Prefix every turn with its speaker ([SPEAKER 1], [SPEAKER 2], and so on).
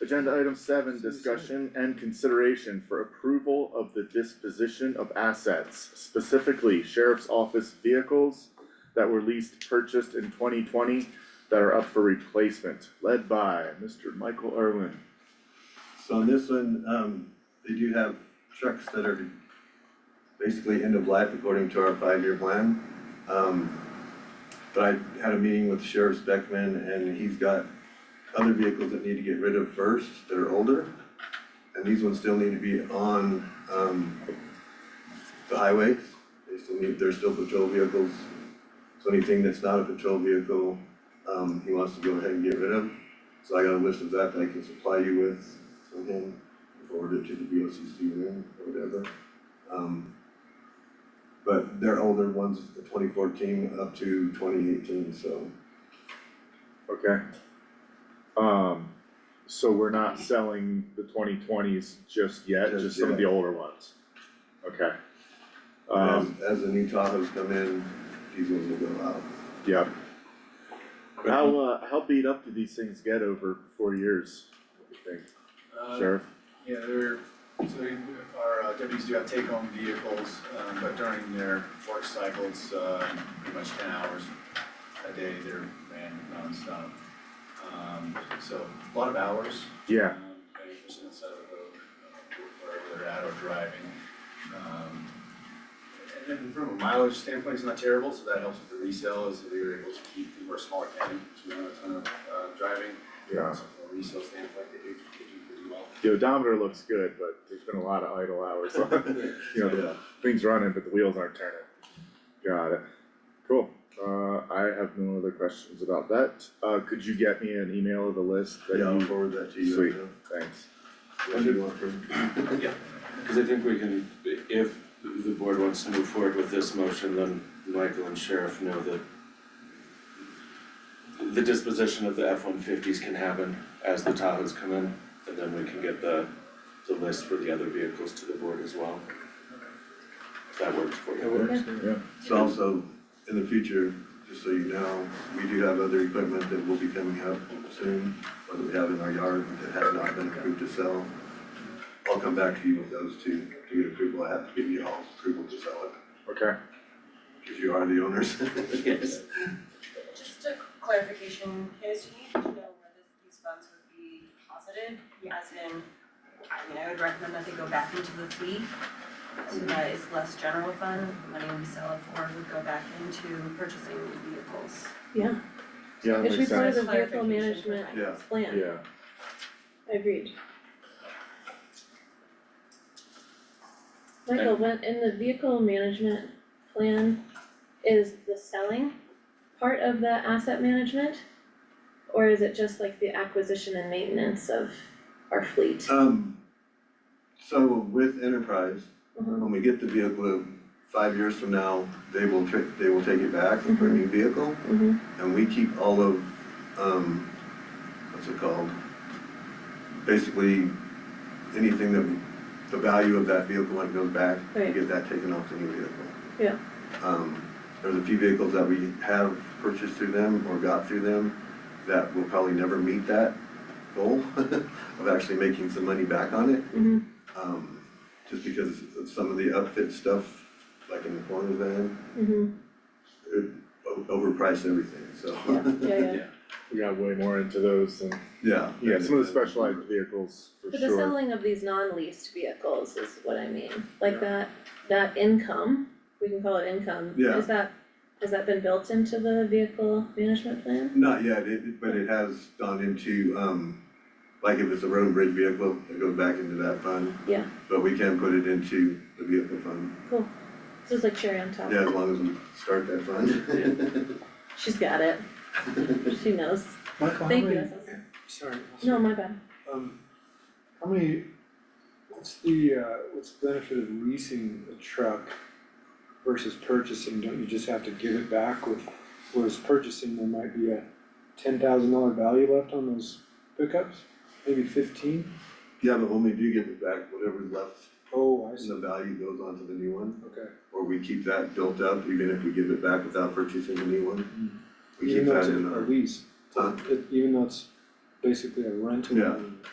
[SPEAKER 1] Agenda item seven, discussion and consideration for approval of the disposition of assets, specifically sheriff's office vehicles that were leased, purchased in twenty twenty that are up for replacement, led by Mr. Michael Irwin.
[SPEAKER 2] So on this one, um, they do have trucks that are basically end of life according to our five-year plan. Um, but I had a meeting with Sheriff Speckman and he's got other vehicles that need to get rid of first that are older. And these ones still need to be on, um, the highways. They still need, they're still patrol vehicles. So anything that's not a patrol vehicle, um, he wants to go ahead and get rid of. So I got a list of that that I can supply you with from him, forward it to the VOCC room or whatever. Um, but they're older ones, the twenty fourteen up to twenty eighteen, so
[SPEAKER 1] Okay. Um, so we're not selling the twenty twenties just yet,
[SPEAKER 2] Just
[SPEAKER 1] just some of the
[SPEAKER 2] yet.
[SPEAKER 1] older ones? Okay.
[SPEAKER 2] as,
[SPEAKER 1] Um,
[SPEAKER 2] as the new Tahoes come in, these ones will go out.
[SPEAKER 1] yeah. How, uh, how beat up do these things get over four years? what do you think,
[SPEAKER 3] Uh,
[SPEAKER 1] Sheriff?
[SPEAKER 3] Yeah, they're, so our uh, deputies do have take-home vehicles, um, but during their work cycles, um pretty much ten hours a day, they're ran nonstop. Um, so a lot of hours.
[SPEAKER 1] Yeah,
[SPEAKER 3] Um, and it's just inside of the road, uh, wherever they're at or driving. Um, and then from a mileage standpoint, it's not terrible, so that helps with the resale, is that we were able to keep, we're a smaller county, so we don't have a ton of, uh, driving.
[SPEAKER 1] Yeah.
[SPEAKER 3] So from a resale standpoint, they do, they do pretty well.
[SPEAKER 1] the odometer looks good, but there's been a lot of idle hours on, you know, the
[SPEAKER 2] Yeah,
[SPEAKER 1] things running, but the wheels aren't turning. Got it. Cool. Uh, I have no other questions about that. Uh, could you get me an email of the list that
[SPEAKER 2] yeah, I'll
[SPEAKER 1] you,
[SPEAKER 2] forward that to you.
[SPEAKER 1] Sweet. thanks.
[SPEAKER 2] What do you want from,
[SPEAKER 4] Cause I think we can, if the board wants to move forward with this motion, then Michael and Sheriff know that the disposition of the F one fifties can happen as the Tahoes come in, and then we can get the, the list for the other vehicles to the board as well. If that works for you.
[SPEAKER 1] Yeah.
[SPEAKER 2] so also, in the future, just so you know, we do have other equipment that will be coming up soon, or that we have in our yard that has not been approved to sell. I'll come back to you with those two, to get approval, I have to give you all approval to sell it.
[SPEAKER 1] Okay.
[SPEAKER 2] Cause you are the owners.
[SPEAKER 4] Yes.
[SPEAKER 5] Just a clarification, Candace, do you need to know where this, these funds would be deposited? As in, I mean, I would recommend that they go back into the fleet, so that it's less general fund, the money we sell it for would go back into purchasing new vehicles.
[SPEAKER 6] Yeah,
[SPEAKER 1] Yeah, that
[SPEAKER 6] it should be
[SPEAKER 1] makes
[SPEAKER 6] part of
[SPEAKER 1] sense.
[SPEAKER 6] the vehicle
[SPEAKER 5] Clarification for
[SPEAKER 6] management
[SPEAKER 2] Yeah.
[SPEAKER 6] plan,
[SPEAKER 1] Yeah,
[SPEAKER 6] agreed. Michael, when, in the vehicle management plan, is the selling part of the asset management? Or is it just like the acquisition and maintenance of our fleet?
[SPEAKER 2] Um, so with Enterprise,
[SPEAKER 6] Mhm.
[SPEAKER 2] when we get the vehicle, five years from now, they will tri- they will take it back for a new vehicle,
[SPEAKER 6] Mhm.
[SPEAKER 2] and we keep all of, um, what's it called? Basically, anything that, we- the value of that vehicle when it goes back, we
[SPEAKER 6] Right.
[SPEAKER 2] get that taken off the new vehicle.
[SPEAKER 6] Yeah.
[SPEAKER 2] Um, there's a few vehicles that we have purchased through them or got through them that will probably never meet that goal of actually making some money back on it.
[SPEAKER 6] Mhm.
[SPEAKER 2] Um, just because of some of the upfit stuff, like in the corner van,
[SPEAKER 6] Mhm.
[SPEAKER 2] it o- overpriced everything, so.
[SPEAKER 6] Yeah, yeah, yeah.
[SPEAKER 1] we got way more into those and,
[SPEAKER 2] Yeah.
[SPEAKER 1] yeah, some of the specialized vehicles for
[SPEAKER 6] But the
[SPEAKER 1] sure.
[SPEAKER 6] selling of these non-leased vehicles is what I mean,
[SPEAKER 2] Yeah.
[SPEAKER 6] like that, that income, we can call it income,
[SPEAKER 2] Yeah.
[SPEAKER 6] is that, has that been built into the vehicle management plan?
[SPEAKER 2] Not yet, it, but it has gone into, um, like if it's a road and bridge vehicle, it goes back into that fund.
[SPEAKER 6] Yeah.
[SPEAKER 2] But we can put it into the vehicle fund,
[SPEAKER 6] This is like cherry on top.
[SPEAKER 2] yeah, as long as we start that fund.
[SPEAKER 6] She's got it, she knows,
[SPEAKER 7] Michael, how
[SPEAKER 6] thank you,
[SPEAKER 7] many,
[SPEAKER 6] that's awesome.
[SPEAKER 7] sorry,
[SPEAKER 6] no, my bad,
[SPEAKER 7] um, how many, what's the, uh, what's the benefit of leasing a truck versus purchasing, don't you just have to give it back with, whereas purchasing, there might be a ten thousand dollar value left on those pickups, maybe fifteen?
[SPEAKER 2] Yeah, but when we do get it back, whatever's left
[SPEAKER 7] Oh, I
[SPEAKER 2] in
[SPEAKER 7] see,
[SPEAKER 2] the value goes on to the new one,
[SPEAKER 7] okay,
[SPEAKER 2] or we keep that built up, even if we give it back without purchasing a new one. We
[SPEAKER 7] even
[SPEAKER 2] keep
[SPEAKER 7] though
[SPEAKER 2] that
[SPEAKER 7] Mm-hmm. it's
[SPEAKER 2] in
[SPEAKER 7] a
[SPEAKER 2] our.
[SPEAKER 7] lease,
[SPEAKER 2] Huh?
[SPEAKER 7] it- even though it's basically a rental.
[SPEAKER 2] Yeah.
[SPEAKER 7] agreement.